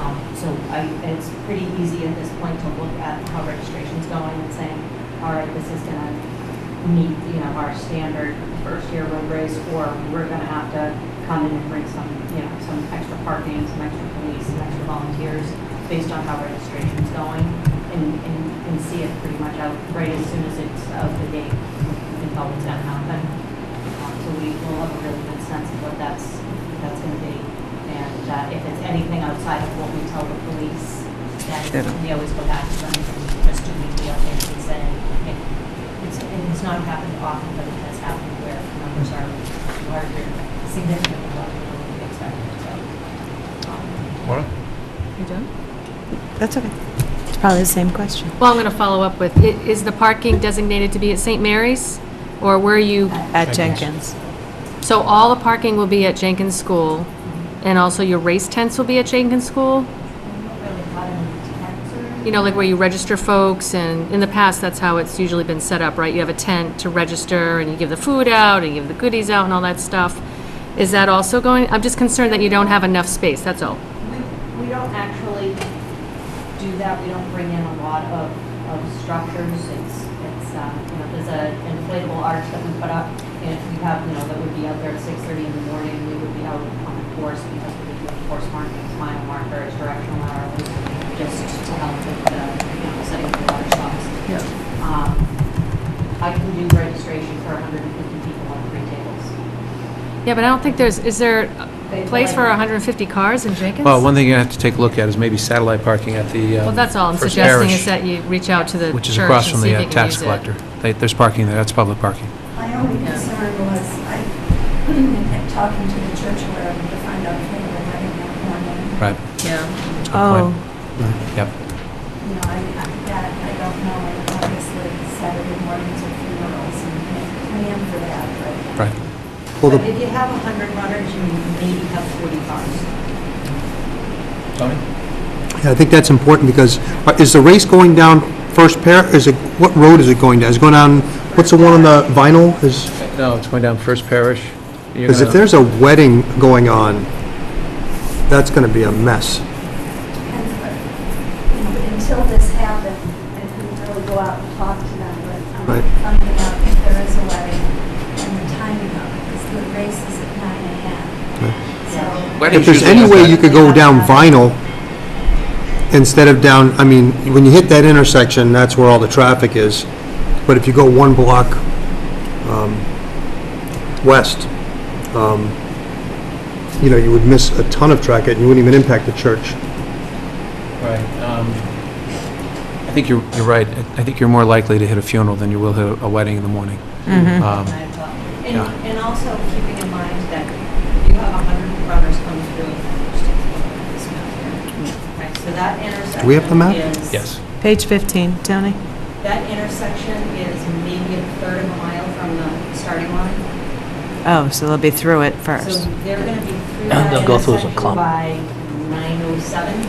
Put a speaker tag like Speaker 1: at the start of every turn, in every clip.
Speaker 1: Um, I- It's pretty easy at this point to look at how registration's going and saying, all right, this is gonna meet, you know, our standard first-year road race, or we're gonna have to come in and bring some, you know, some extra parking, some extra police, some extra volunteers, based on how registration's going, and, and, and see it pretty much out right as soon as it's of the date, you can tell what's gonna happen. Um, So we will have a really good sense of what that's, that's gonna be. And uh, if it's anything outside of what we tell the police, then
Speaker 2: It'll-
Speaker 1: we always go back to them and just do weekly updates and say, "Hey, it's, and it's not happened often, but it has happened where numbers are larger, significantly larger than we expected, so. um,
Speaker 3: Maura?
Speaker 4: You done?
Speaker 2: That's okay. It's probably the same question.
Speaker 4: Well, I'm going to follow up with, i- is the parking designated to be at St. Mary's? Or were you,
Speaker 2: At Jenkins.
Speaker 4: so all the parking will be at Jenkins School, and also your race tents will be at Jenkins School?
Speaker 1: I'm not really caught in the tents or-
Speaker 4: You know, like where you register folks, and in the past, that's how it's usually been set up, right? You have a tent to register, and you give the food out, and you give the goodies out, and all that stuff. Is that also going, I'm just concerned that you don't have enough space, that's all.
Speaker 1: We, we don't actually do that, we don't bring in a lot of, of structures, it's, it's, um, you know, there's a inflatable arch that we put up, and if we have, you know, that would be out there at six thirty in the morning, we would be out on the course, because we do course markings, mile markers, directional arrows, just to help with the, you know, setting the water stops.
Speaker 2: Yeah.
Speaker 1: Um, I can do registration for hundred and fifty people on three tables.
Speaker 4: Yeah, but I don't think there's, is there
Speaker 1: They-
Speaker 4: a place for 150 cars in Jenkins?
Speaker 3: Well, one thing you have to take a look at is maybe satellite parking at the uh,
Speaker 4: Well, that's all I'm
Speaker 3: First
Speaker 4: suggesting,
Speaker 3: Parish,
Speaker 4: is that you reach out to the
Speaker 3: Which is
Speaker 4: church
Speaker 3: across
Speaker 4: and
Speaker 3: from
Speaker 4: see
Speaker 3: the
Speaker 4: if
Speaker 3: uh,
Speaker 4: they can
Speaker 3: tax
Speaker 4: use it.
Speaker 3: collector. They- There's parking there, that's public parking.
Speaker 5: My only concern was, I kept talking to the church where to find out if they were running that morning.
Speaker 3: Right.
Speaker 4: Yeah,
Speaker 3: That's a good
Speaker 2: Oh,
Speaker 3: point. Yep.
Speaker 5: You know, I, I- that, I don't know, and obviously Saturday mornings are funerals and you can't plan for that, but.
Speaker 3: Right.
Speaker 6: Well,
Speaker 1: But
Speaker 6: the,
Speaker 1: if you have hundred runners, you maybe have forty cars.
Speaker 3: Tony?
Speaker 6: I think that's important because uh, is the race going down First Par, is it, what road is it going down? Is it going down, what's the one on the vinyl? Is,
Speaker 3: No, it's going down First Parish. You're
Speaker 6: because if
Speaker 3: gonna-
Speaker 6: there's a wedding going on, that's going to be a mess.
Speaker 5: And, uh, you know, Until this happened, I couldn't really go out and talk to them, but I'm
Speaker 6: Right.
Speaker 5: finding out if there is a wedding and the timing of it, because the race is at nine AM. So,
Speaker 3: Weddings
Speaker 6: If there's
Speaker 3: usually
Speaker 6: any
Speaker 3: have
Speaker 6: way
Speaker 3: that.
Speaker 6: you could go down vinyl instead of down, I mean, when you hit that intersection, that's where all the traffic is. But if you go one block um, west, um, you know, you would miss a ton of traffic and you wouldn't even impact the church.
Speaker 3: Right. um, I think you're, you're right. I- I think you're more likely to hit a funeral than you will hit a- a wedding in the morning.
Speaker 4: Mm-hmm.
Speaker 2: mhm.
Speaker 3: Um,
Speaker 1: Nine o'clock. And,
Speaker 3: Yeah.
Speaker 1: and also keeping in mind that you have a hundred runners coming through and there's just one on this map here. Right, so that intersection
Speaker 6: we have the map?
Speaker 1: is-
Speaker 3: Yes.
Speaker 2: Page 15, Tony.
Speaker 1: That intersection is maybe a third of a mile from the starting line.
Speaker 2: Oh, so they'll be through it
Speaker 1: So
Speaker 2: first.
Speaker 1: they're gonna be through that
Speaker 7: They'll go through as a
Speaker 1: intersection
Speaker 7: clump.
Speaker 1: by nine oh seven.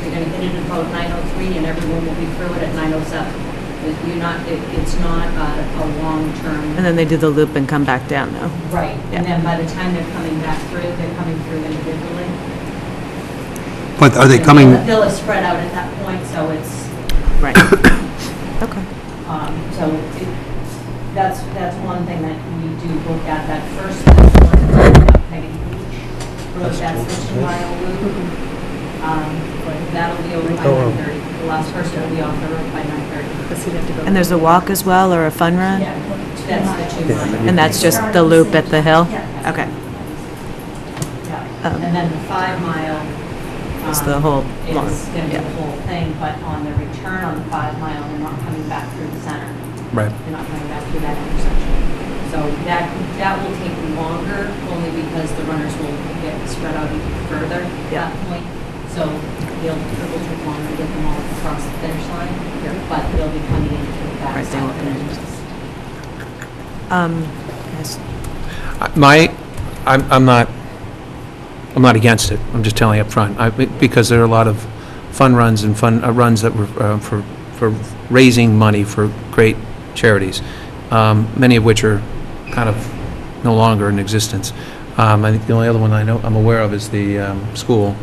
Speaker 1: They're gonna hit it at about nine oh three and everyone will be through it at nine oh seven. You're not, it, it's not a, a long-term.
Speaker 2: And then they do the loop and come back down, though.
Speaker 1: Right, and
Speaker 2: Yeah.
Speaker 1: then by the time they're coming back through, they're coming through individually.
Speaker 6: But are they coming,
Speaker 1: The bill is spread out at that point, so it's,
Speaker 2: Right. Okay.
Speaker 1: um, so it- that's, that's one thing that we do look at, that first, one, uh, Peggy Beach Road, that's the two-mile loop. Um, That'll be over by
Speaker 6: Oh, wow.
Speaker 1: 9:30, the last person will be off the road by 9:30.
Speaker 2: And there's a walk as well, or a fun run?
Speaker 1: Yeah, that's the
Speaker 6: Yeah,
Speaker 1: two-mile.
Speaker 2: And that's just the loop at the hill?
Speaker 5: Yeah.
Speaker 2: Okay.
Speaker 1: Yeah,
Speaker 2: Um,
Speaker 1: and then the five-mile.
Speaker 2: It's Um, the whole long,
Speaker 1: It's going to be
Speaker 2: yeah.
Speaker 1: the whole thing, but on the return on the five-mile, they're not coming back through the center.
Speaker 3: Right.
Speaker 1: They're not coming back through that intersection. So that, that will take longer, only because the runners will get spread out even further at
Speaker 2: Yeah.
Speaker 1: that point. So they'll, it will take longer to get them all across the finish line, but they'll be coming into the
Speaker 2: Right,
Speaker 1: back
Speaker 2: they won't be in. Um, yes.
Speaker 3: I- My, I'm, I'm not, I'm not against it, I'm just telling you up front. I, because there are a lot of fun runs and fun, uh, runs that were uh, for, for raising money for great charities, um, many of which are kind of no longer in existence. Um, I think the only other one I know, I'm aware of is the um, school,